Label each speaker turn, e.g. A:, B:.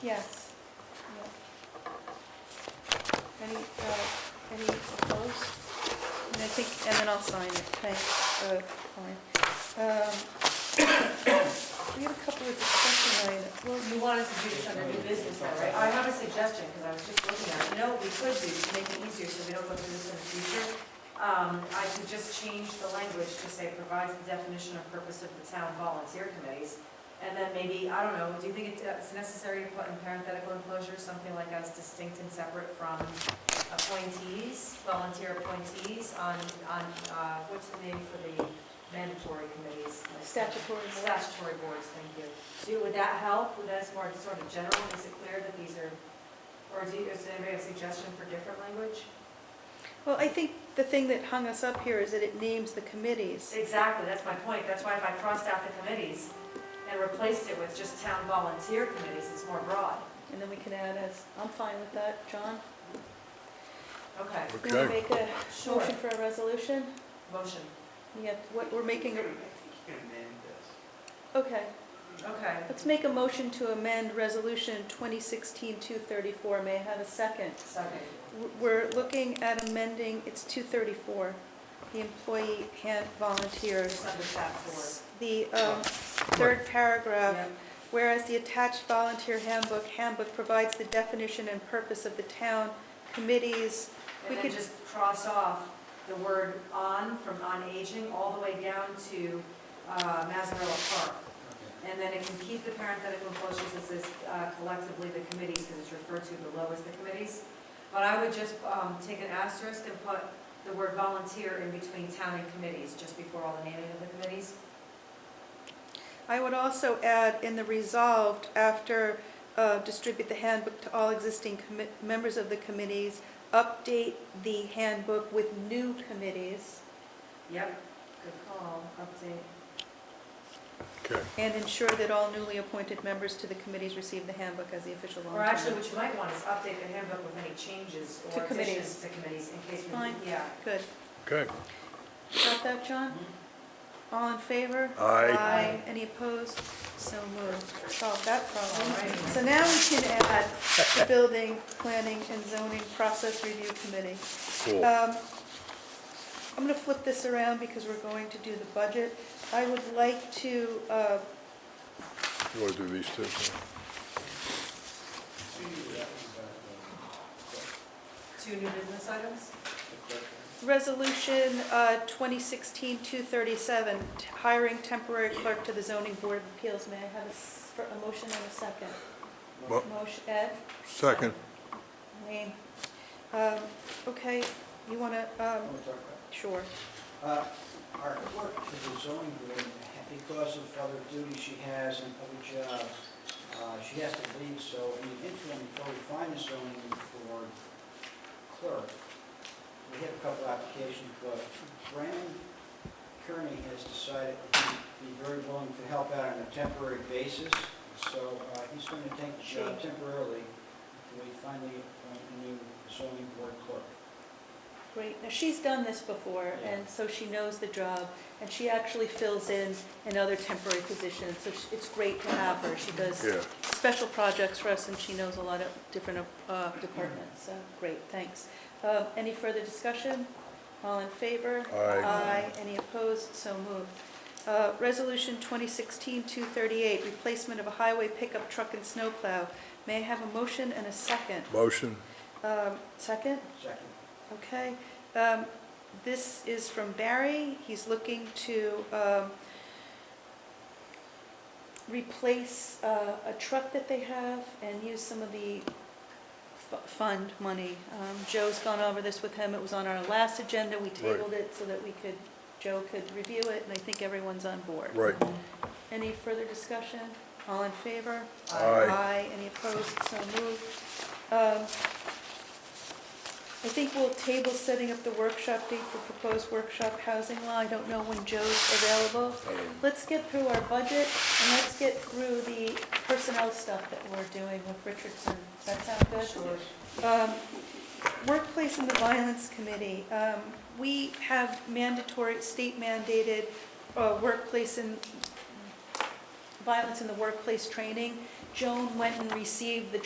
A: Yes. Yeah. Any, uh, any opposed? And I think, and then I'll sign it, thanks, uh, fine. Um, We have a couple of discussion items, well,
B: You wanted to do this under new business though, right? I have a suggestion, because I was just looking at it. You know what we could do to make it easier so we don't go through this in the future? Um, I could just change the language to say provides the definition or purpose of the town volunteer committees. And then maybe, I don't know, do you think it's necessary to put in parenthetical enclosure, something like as distinct and separate from appointees, volunteer appointees on, on, uh, what's the name for the mandatory committees?
A: statutory.
B: Statutory boards, thank you. Do, would that help? Would that's more sort of general? Is it clear that these are, or do you, does anybody have a suggestion for different language?
A: Well, I think the thing that hung us up here is that it names the committees.
B: Exactly, that's my point. That's why if I crossed out the committees and replaced it with just town volunteer committees, it's more broad.
A: And then we can add as, I'm fine with that, John.
B: Okay,
A: You want to
C: Okay,
A: make a
B: sure.
A: motion for a resolution?
B: Motion.
A: We have, what, we're making, a okay.
B: Okay.
A: Let's make a motion to amend Resolution 2016-234. May I have a second?
B: Second.
A: W- We're looking at amending, it's 234, the employee can't volunteers.
B: It's under tab four.
A: The um, third paragraph,
B: Yep.
A: whereas the attached volunteer handbook, handbook provides the definition and purpose of the town committees. We
B: And then
A: could-
B: just cross off the word on from on aging all the way down to uh, Mazzarella Park. And then it can keep the parenthetical enclosures that says uh, collectively the committees, because it's referred to below as the committees. But I would just um, take an asterisk and put the word volunteer in between town and committees, just before all the naming of the committees.
A: I would also add in the resolved, after uh, distribute the handbook to all existing commi- members of the committees, update the handbook with new committees,
B: Yep, good call, update.
C: okay.
A: and ensure that all newly appointed members to the committees receive the handbook as the official
B: Or actually,
A: long-term.
B: what you might want is update the handbook with any changes
A: To
B: or
A: committees.
B: additions to committees in case
A: Fine.
B: we, yeah.
A: Good.
C: Okay,
A: Got that, John?
B: Mm-hmm.
A: All in favor?
C: Aye.
A: Any opposed? So moved. Solved that problem.
B: Alright.
A: So now we can add the Building, Planning, and Zoning Process Review Committee.
C: cool.
A: Um, I'm going to flip this around because we're going to do the budget. I would like to, uh,
C: You want to do these two?
B: Two new business items?
A: Resolution uh, 2016-237, t- hiring temporary clerk to the zoning board of appeals. May I have a s- for a motion and a second?
C: Mo-
A: Motion, Ed?
C: Second,
A: Wayne, um, okay, you want to, um, sure.
D: Uh, Our clerk to the zoning board, because of other duties she has and other jobs, uh, she has to leave, so in the interim, before we find a zoning board clerk, we have a couple applications, but Brandon Kearney has decided he'd be very willing to help out on a temporary basis, so uh, he's going to take the job temporarily until we find the uh, new zoning board clerk.
A: Great, now she's done this before, and so she knows the job, and she actually fills in in other temporary positions, so she- it's great to have her. She does
C: yeah.
A: special projects for us, and she knows a lot of different uh, departments, so, great, thanks. Um, Any further discussion? All in favor?
C: Aye.
A: Any opposed? So moved. Uh, Resolution 2016-238, replacement of a highway pickup truck and snowplow. May I have a motion and a second?
C: Motion,
A: Um, Second?
D: Second.
A: Okay. Um, This is from Barry. He's looking to um, replace uh, a truck that they have and use some of the fu- fund money. Um, Joe's gone over this with him. It was on our last agenda. We tabled it so that we could, Joe could review it, and I think everyone's on board.
C: right,
A: Any further discussion? All in favor?
C: Aye.
A: Any opposed? So moved. Um, I think we'll table setting up the workshop date for proposed workshop housing law. I don't know when Joe's available.
C: um,
A: Let's get through our budget and let's get through the personnel stuff that we're doing with Richardson. Does that sound good? Um, Workplace and the Violence Committee, um, we have mandatory, state mandated uh, workplace and violence in the workplace training. Joan went and received the